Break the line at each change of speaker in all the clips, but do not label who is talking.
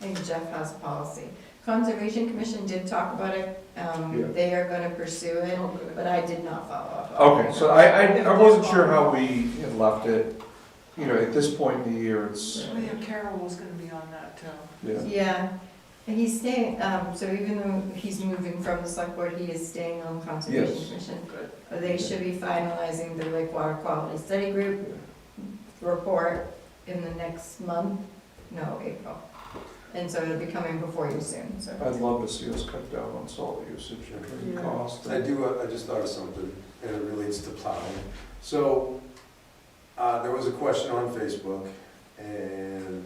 I think Jeff has policy. Conservation Commission did talk about it,
Yeah.
um, they are gonna pursue it, but I did not follow up. on
Okay,
it.
so I, I, I wasn't sure how we had left it, you know, at this point in the year, it's,
Oh, yeah, Carol was gonna be on that too.
yeah.
Yeah, and he's staying, um, so even though he's moving from the select board, he is staying on Conservation
Yes.
Commission.
Good.
But They should be finalizing the Lake Water Quality Study Group report in the next month, no, April. And so it'll be coming before you soon, so.
I'd love to see us cut down on salt usage and
Yeah.
cost.
I do, uh, I just thought of something, and it relates to plowing. So, uh, there was a question on Facebook, and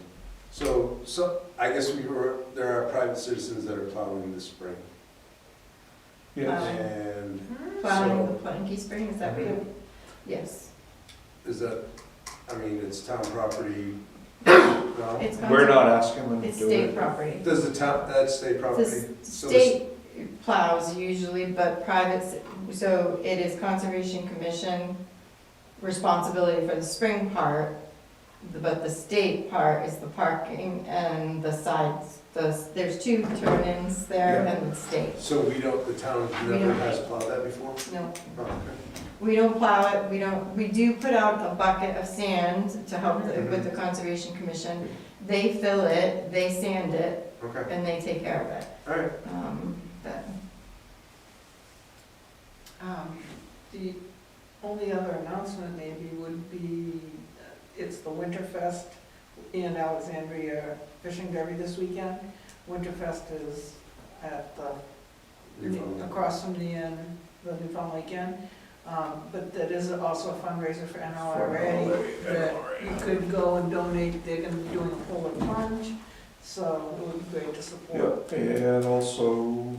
so, so, I guess we were, there are private citizens that are plowing this spring.
Yes,
Um,
And
Plowing the Planky Spring, is that real? Yes,
is that, I mean, it's town property, no?
it's.
we're
conser-
not asking them to
It's
do
state
it.
property.
Does the town, that's state property?
The
So this-
state plows usually, but private, so it is Conservation Commission responsibility for the spring part, but the state part is the parking and the sides, the, there's two turn-ins there
Yeah.
and the state.
So we don't, the town
We
never
don't.
has plowed that before?
No,
Oh, okay.
we don't plow it, we don't, we do put out a bucket of sand to help the- with the
Mm-hmm.
Conservation Commission. They fill it, they sand it,
Okay,
and they take care of it.
all right.
Um, but
Um, The only other announcement maybe would be, uh, it's the Winterfest in Alexandria Fishing Derby this weekend. Winterfest is at the
You're fine.
across from the inn, the Newfound Lake Inn. Um, But that is also a fundraiser for NLRA, that you could go and donate, they're gonna be doing a polar plunge, so it would be great to
Yep,
support.
and also,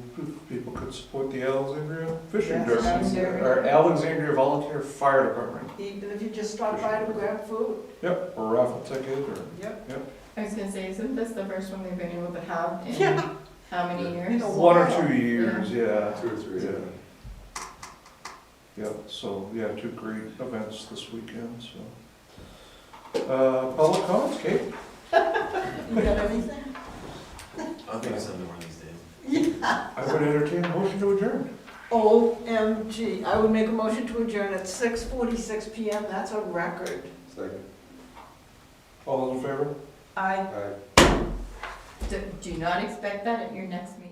people could support the Alexandria Fishing
Yes,
Derby,
Alexandria.
or Alexandria Volunteer Fire Department.
Even if you just stop by to grab food.
Yep, or raffle ticket, or,
Yep.
I was gonna say, isn't this the first one they've been able to have in
Yeah.
how many years?
In a
one or
while.
two years, yeah.
Two or three, yeah.
Yep, so, yeah, two great events this weekend, so. Uh, public comments, Kate?
You got anything?
I don't think it's something one of these days.
I would entertain a motion to adjourn.
OMG, I would make a motion to adjourn at six forty-six PM, that's a record.
Second,
All those in favor?
I
all right.
Do, do not expect that at your next meeting.